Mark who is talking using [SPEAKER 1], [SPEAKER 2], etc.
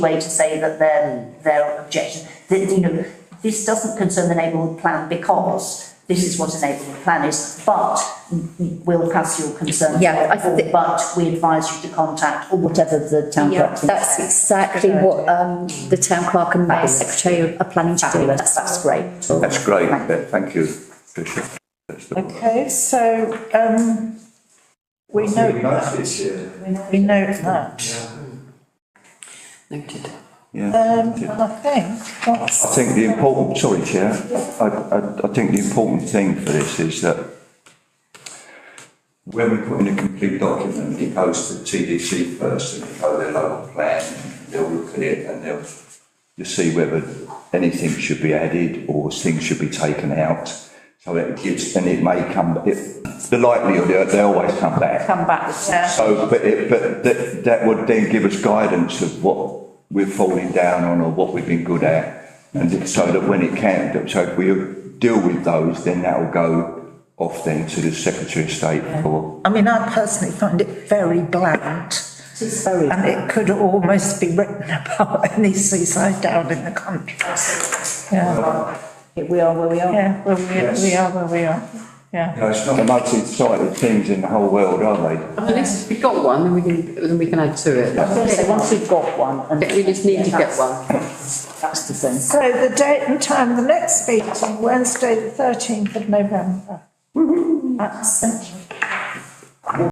[SPEAKER 1] way to say that their, their objection, that, you know, this doesn't concern the neighbourhood plan because this is what a neighbourhood plan is, but we'll pass your concern.
[SPEAKER 2] Yeah, I thi-
[SPEAKER 1] But we advise you to contact or whatever the town
[SPEAKER 2] Yeah,
[SPEAKER 1] clerk.
[SPEAKER 2] that's
[SPEAKER 1] thinks.
[SPEAKER 2] exactly what, um, the town clerk and mayor
[SPEAKER 1] Fabulous.
[SPEAKER 2] secretary are planning to do, that's, that's great.
[SPEAKER 3] That's great, Beth, thank you, Patricia. That's the-
[SPEAKER 4] Okay, so, um, we note that, we note that.
[SPEAKER 5] Noted.
[SPEAKER 3] Yeah.
[SPEAKER 4] Um, and I think
[SPEAKER 3] I
[SPEAKER 4] that's,
[SPEAKER 3] think the important, sorry, Chair, I, I, I think the important thing for this is that when we put in a complete document, it goes to TDC first, and they go their local plan, and they'll look at it, and they'll to see whether anything should be added or things should be taken out. So it gives, and it may come, it, the likelihood, they- they always come back.
[SPEAKER 4] come back, yeah,
[SPEAKER 3] So, but it, but that, that would then give us guidance of what we're falling down on or what we've been good at. And it- so that when it can, that- so if we deal with those, then that'll go off then to the Secretary of State for.
[SPEAKER 4] I mean, I personally find it very bland.
[SPEAKER 1] It's very.
[SPEAKER 4] And it could almost be written about any seaside town in the country. Yeah,
[SPEAKER 1] We are where we are.
[SPEAKER 4] yeah, well, we, we are where we are, yeah.
[SPEAKER 3] You know, it's not the most exciting things in the whole world, are they?
[SPEAKER 5] At least we've got one, then we can, then we can add to it.
[SPEAKER 1] I was gonna say, once we've got one, and
[SPEAKER 5] We just need to get one.
[SPEAKER 1] that's the thing.
[SPEAKER 4] So the date and time, the next meeting, Wednesday, the thirteenth of November. At St